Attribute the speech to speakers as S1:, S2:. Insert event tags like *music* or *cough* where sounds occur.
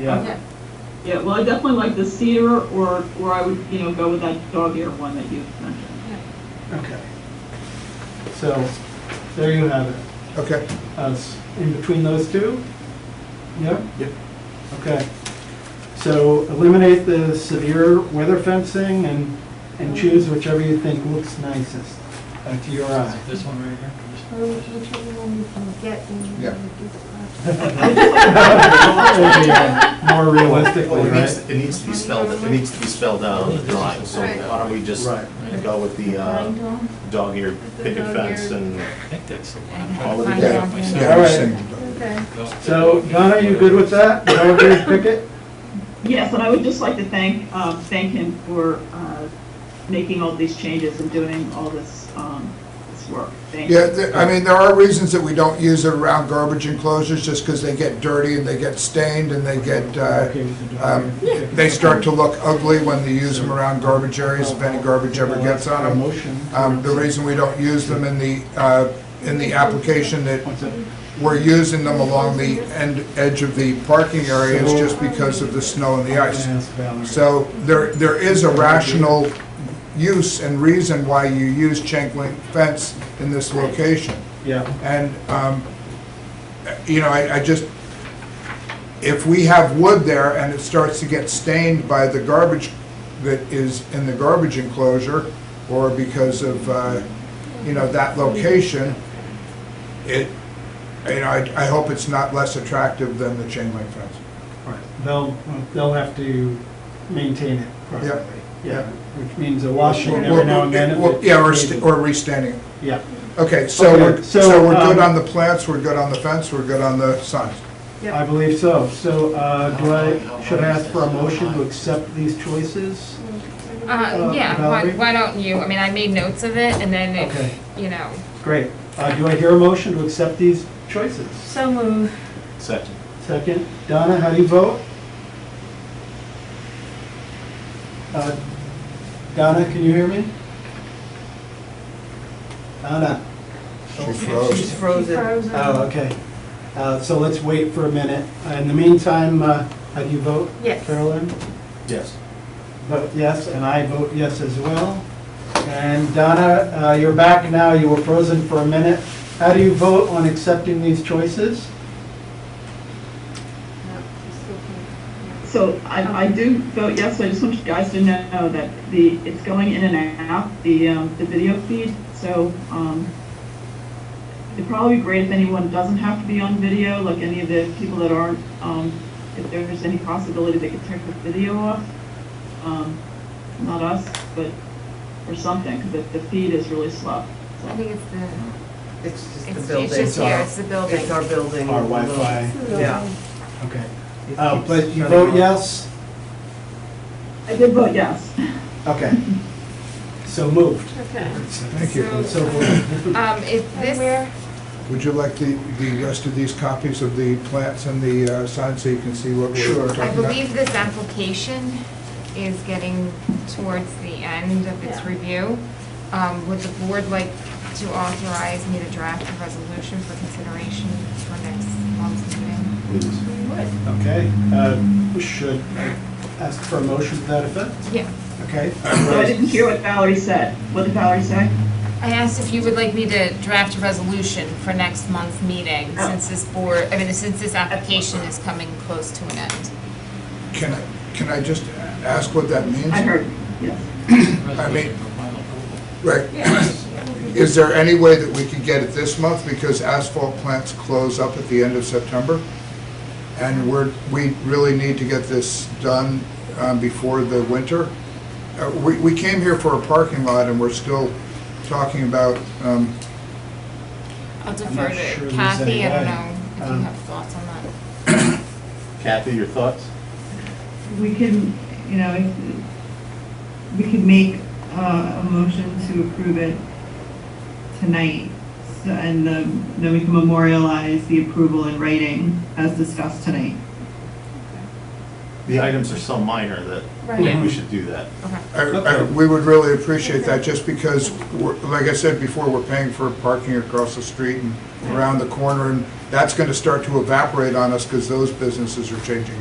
S1: Yeah,
S2: Okay. Yeah, well, I definitely like the cedar, or, or I would, you know, go with that dog ear one that you mentioned.
S1: okay. So, there you have it.
S3: Okay.
S1: us in between those two? Yeah?
S3: Yep.
S1: Okay. So eliminate the severe weather fencing and, and choose whichever you think looks nicest uh, to your eye.
S4: This one right here?
S3: Yeah.
S1: It'll be, uh, More
S5: Well,
S1: realistically,
S5: it needs,
S1: right?
S5: it needs to be spelled, it needs to be spelled out in the drawing, so
S6: Right.
S5: why don't we just
S1: Right.
S5: go with the uh, dog ear
S6: The
S5: picket
S6: dog
S5: fence
S6: ear.
S5: and
S4: I think that's the
S5: all of the.
S6: Find
S3: Yeah.
S6: out.
S3: Yeah,
S1: All right.
S3: same.
S6: Okay.
S1: So Donna, you good with that? Dog ear picket?
S2: Yes, and I would just like to thank, um, thank him for, uh, making all these changes and doing all this, um, this work. Thank
S3: Yeah,
S2: you.
S3: th- I mean, there are reasons that we don't use it around garbage enclosures, just because they get dirty and they get stained and they get, uh,
S1: Okay with the dog
S3: um,
S1: ear picket.
S3: they start to look ugly when they use them around garbage areas, if any garbage ever gets on
S1: A
S3: them.
S1: Motion.
S3: Um, The reason we don't use them in the, uh, in the application that
S1: What's that?
S3: we're using them along the end, edge of the parking area is just because of the snow and the ice.
S1: I'm gonna ask Valerie.
S3: So there, there is a rational use and reason why you use chain link fence in this location.
S1: Yeah,
S3: And, um, you know, I, I just, if we have wood there and it starts to get stained by the garbage that is in the garbage enclosure, or because of, uh, you know, that location, it, you know, I, I hope it's not less attractive than the chain link fence.
S1: all right. They'll, they'll have to maintain it properly. Yeah, which means a washing every now and then. if
S3: Well,
S1: it's
S3: Yeah, or,
S1: needed.
S3: st- or restanding. it.
S1: Yeah,
S3: Okay, so
S1: Okay,
S3: we're,
S1: so,
S3: so we're good
S1: um,
S3: on the plants, we're good on the fence, we're good on the signs.
S1: I believe so. So uh, do I, should I ask for a motion to accept these choices?
S6: Uh, yeah, why,
S1: Valerie?
S6: why don't you, I mean, I made notes of it, and then
S1: Okay.
S6: if, you know.
S1: Great. Uh, Do I hear a motion to accept these choices?
S6: So moved.
S5: Second.
S1: Second, Donna, how do you vote? Uh, Donna, can you hear me? Donna?
S3: She froze.
S6: Frozen.
S1: Oh, okay. Uh, So let's wait for a minute. In the meantime, uh, how do you vote?
S6: Yes.
S1: Carolyn?
S5: Yes.
S1: vote yes, and I vote yes as well. And Donna, uh, you're back now, you were frozen for a minute. How do you vote on accepting these choices?
S2: So I, I do vote yes, I just want you guys to know that the, it's going in and out, the, um, the video feed, so, um, it'd probably be great if anyone doesn't have to be on video, like any of the people that aren't, um, if there's any possibility they could turn the video off. Um, not us, but, or something, because the feed is really slow.
S7: I think it's the, it's just the
S6: It's,
S7: building.
S6: it's just here, it's the building.
S7: It's our building.
S1: Our Wi-Fi,
S7: Yeah.
S1: okay.
S7: It
S1: Uh,
S7: keeps
S1: But you
S7: shutting
S1: vote
S7: off.
S1: yes?
S2: I did vote yes. *laughs*
S1: Okay. So moved.
S6: Okay.
S3: Thank you.
S1: So moved.
S6: Um, is this,
S3: Would you like the, the rest of these copies of the plants and the uh, signs so you can see what
S1: Sure.
S3: we're talking
S6: I
S3: about?
S6: believe this application is getting towards the end of its review. Um, would the board like to authorize me to draft a resolution for consideration for next month's meeting?
S5: Please.
S1: Okay, uh, we should ask for a motion to that effect?
S6: Yeah.
S1: Okay.
S2: So I didn't hear what Valerie said. What did Valerie say?
S6: I asked if you would like me to draft a resolution for next month's meeting,
S2: Oh.
S6: since this board, I mean, since this application is coming close to an end.
S3: Can I, can I just ask what that means?
S2: I heard, yes.
S3: I mean-
S4: mean.
S3: Right. Is there any way that we could get it this month because asphalt plants close up at the end of September? And we're, we really need to get this done um, before the winter. Uh, We, we came here for a parking lot and we're still talking about, um,
S6: I'll
S1: not
S6: defer
S1: sure
S6: to
S1: there's
S6: Kathy, I
S1: any way.
S6: don't know if you
S1: Um,
S6: have thoughts on that.
S5: Kathy, your thoughts?
S8: We can, you know, if- we could make uh, a motion to approve it tonight, so- and then then we can memorialize the approval in writing as discussed tonight.
S5: The items are so minor that
S6: Yeah.
S5: we should do that.
S6: Okay.
S3: I- I-
S1: Okay.
S3: we would really appreciate that just because, we're- like I said before, we're paying for parking across the street and around the corner and that's going to start to evaporate on us because those businesses are changing